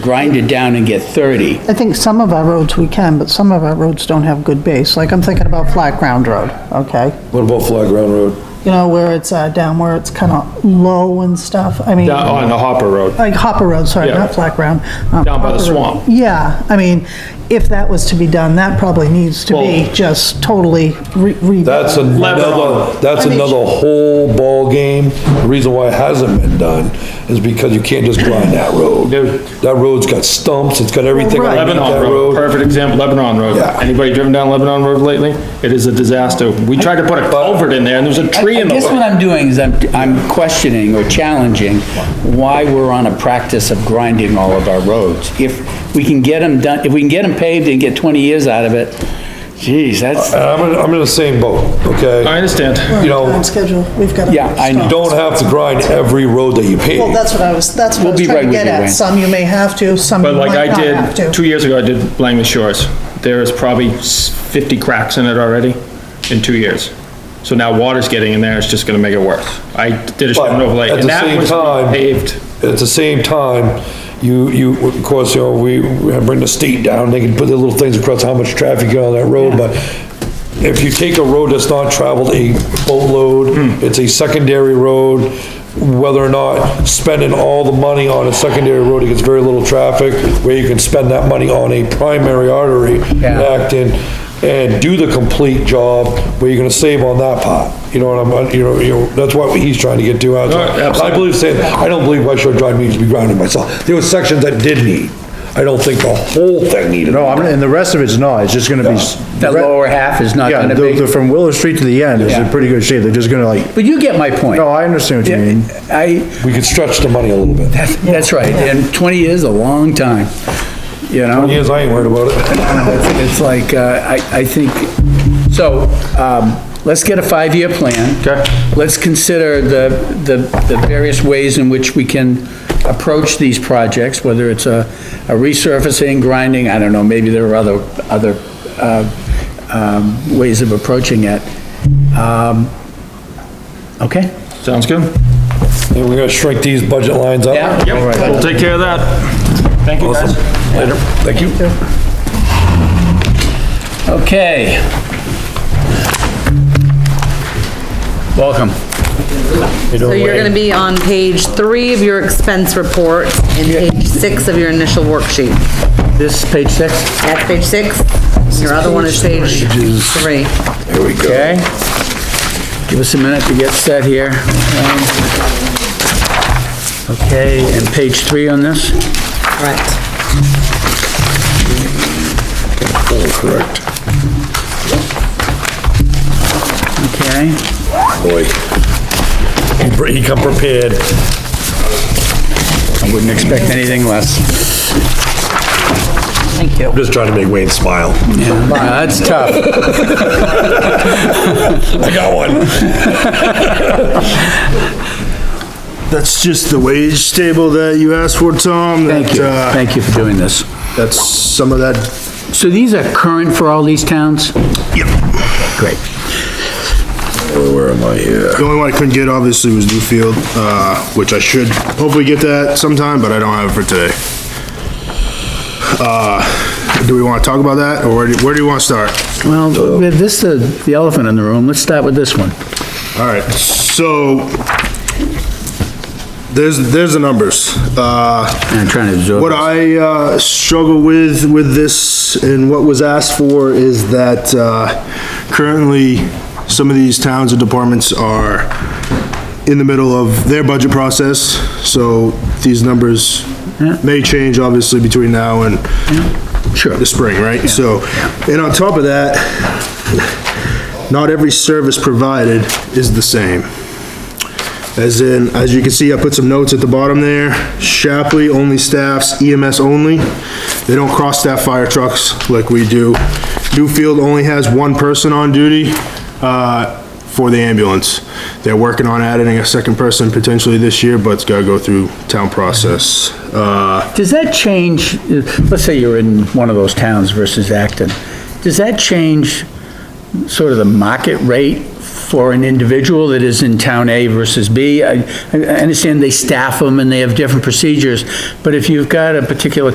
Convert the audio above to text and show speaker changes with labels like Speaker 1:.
Speaker 1: grind it down and get 30.
Speaker 2: I think some of our roads we can, but some of our roads don't have good base. Like, I'm thinking about Flat Ground Road, okay?
Speaker 3: What about Flat Ground Road?
Speaker 2: You know, where it's uh, down, where it's kind of low and stuff. I mean,
Speaker 4: Down oh, on the Hopper Road.
Speaker 2: like Hopper Road, sorry,
Speaker 4: Yeah.
Speaker 2: not Flat Ground. um,
Speaker 4: Down by the
Speaker 2: Hopper Road.
Speaker 4: swamp.
Speaker 2: Yeah, I mean, if that was to be done, that probably needs to be
Speaker 4: Well-
Speaker 2: just totally re- rebuilt.
Speaker 3: That's another, that's
Speaker 2: I mean-
Speaker 3: another whole ballgame. The reason why it hasn't been done is because you can't just grind that road.
Speaker 4: Dude.
Speaker 3: That road's got stumps, it's got everything
Speaker 2: Right.
Speaker 3: underneath that
Speaker 4: Lebanon
Speaker 3: road.
Speaker 4: Road, perfect example, Lebanon Road.
Speaker 3: Yeah.
Speaker 4: Anybody driven down Lebanon Road lately? It is a disaster. We tried to put a culvert in there and there was a tree
Speaker 1: I
Speaker 4: in the
Speaker 1: guess what
Speaker 4: way.
Speaker 1: I'm doing is I'm, I'm questioning or challenging why we're on a practice of grinding all of our roads. If we can get them done, if we can get them paved and get 20 years out of it, geez, that's,
Speaker 3: And I'm, in- I'm in the same boat, okay?
Speaker 4: I understand.
Speaker 3: You know,
Speaker 2: Time schedule, we've got to.
Speaker 1: Yeah, I know.
Speaker 3: don't have to grind every road that you pave.
Speaker 2: Well, that's what I was, that's what I
Speaker 1: We'll
Speaker 2: was
Speaker 1: be right
Speaker 2: trying to
Speaker 1: with
Speaker 2: get
Speaker 1: you,
Speaker 2: at.
Speaker 1: Wayne.
Speaker 2: Some you may have to, some you
Speaker 4: But like
Speaker 2: might
Speaker 4: I
Speaker 2: not have
Speaker 4: did, two
Speaker 2: to.
Speaker 4: years ago, I did Langley Shores. There is probably s- 50 cracks in it already in two years. So now water's getting in there, it's just gonna make it worse. I did a short
Speaker 3: But
Speaker 4: overlay
Speaker 3: at
Speaker 4: and
Speaker 3: the
Speaker 4: that
Speaker 3: same
Speaker 4: was
Speaker 3: time-
Speaker 4: paved.
Speaker 3: At the same time, you, you, of course, you know, we we bring the state down, they can put their little things across how much traffic you got on that road, but if you take a road that's not traveled a boatload, it's a secondary road, whether or not spending all the money on a secondary road, it gets very little traffic, where you can spend that money on a primary artery,
Speaker 1: Yeah.
Speaker 3: Acton, and do the complete job, where you're gonna save on that part. You know what I'm, uh, you know, you know, that's what he's trying to get to out
Speaker 4: Oh, absolutely.
Speaker 3: I believe saying, I don't believe West Shore Drive needs to be grounded myself. There were sections that did need. I don't think the whole thing needed.
Speaker 5: No, I'm, and the rest of it's not, it's just gonna be. s-
Speaker 1: that lower half is not
Speaker 5: Yeah,
Speaker 1: gonna
Speaker 5: the-
Speaker 1: be.
Speaker 5: the- from Willow Street to the end is
Speaker 1: Yeah.
Speaker 5: in pretty good shape, they're just gonna like,
Speaker 1: But you get my point.
Speaker 5: no, I understand what you mean.
Speaker 1: I,
Speaker 3: We could stretch the money a little bit.
Speaker 1: that's, that's right, and 20 years is a long time, you know?
Speaker 3: Yes, I ain't worried about it.
Speaker 1: It's it's like, uh, I, I think, so, um, let's get a five-year plan.
Speaker 4: Okay.
Speaker 1: Let's consider the, the, the various ways in which we can approach these projects, whether it's a, a resurfacing, grinding, I don't know, maybe there are other, other, uh, um, ways of approaching it. Um, okay?
Speaker 4: Sounds good?
Speaker 3: And we're gonna shrink these budget lines up.
Speaker 1: Yeah.
Speaker 4: Yep, we'll take care of that. Thank you guys.
Speaker 3: Later. Thank you.
Speaker 1: Okay. Welcome.
Speaker 6: So you're gonna be on page three of your expense report and page six of your initial worksheet.
Speaker 1: This, page six?
Speaker 6: That's page six, your other one is page three.
Speaker 1: Okay. Give us a minute to get set here. Um, Okay, and page three on this?
Speaker 6: Correct.
Speaker 1: Okay.
Speaker 3: Boy. He br- He come prepared.
Speaker 1: I wouldn't expect anything less.
Speaker 6: Thank you.
Speaker 3: I'm just trying to make Wayne smile.
Speaker 1: Yeah, That's tough.
Speaker 3: I got one.
Speaker 5: That's just the wage table that you asked for, Tom.
Speaker 1: Thank you.
Speaker 5: that, uh,
Speaker 1: Thank you for doing this.
Speaker 5: That's some of that,
Speaker 1: So these are current for all these towns?
Speaker 5: yep.
Speaker 1: Great.
Speaker 3: Where am I here?
Speaker 5: The only one I couldn't get obviously was Newfield, uh, which I should hopefully get that sometime, but I don't have it for today. Uh, do we wanna talk about that, or where do, where do you wanna start?
Speaker 1: Well, with this, uh, the elephant in the room, let's start with this one.
Speaker 5: All right, so there's, there's the numbers. Uh,
Speaker 1: And I'm trying to absorb.
Speaker 5: What
Speaker 1: this.
Speaker 5: I uh, struggle with, with this and what was asked for is that uh, currently, some of these towns and departments are in the middle of their budget process, so these numbers may change obviously between now and the spring, right? So, and on top of that, not every service provided is the same. As in, as you can see, I put some notes at the bottom there. Shapley only staffs EMS only. They don't cross-staff fire trucks like we do. Newfield only has one person on duty, uh, for the ambulance. They're working on adding a second person potentially this year, but it's gotta go through town process. Uh,
Speaker 1: Does that change, let's say you're in one of those towns versus Acton, does that change sort of the market rate for an individual that is in town A versus B? I I- I understand they staff them and they have different procedures, but if you've got a particular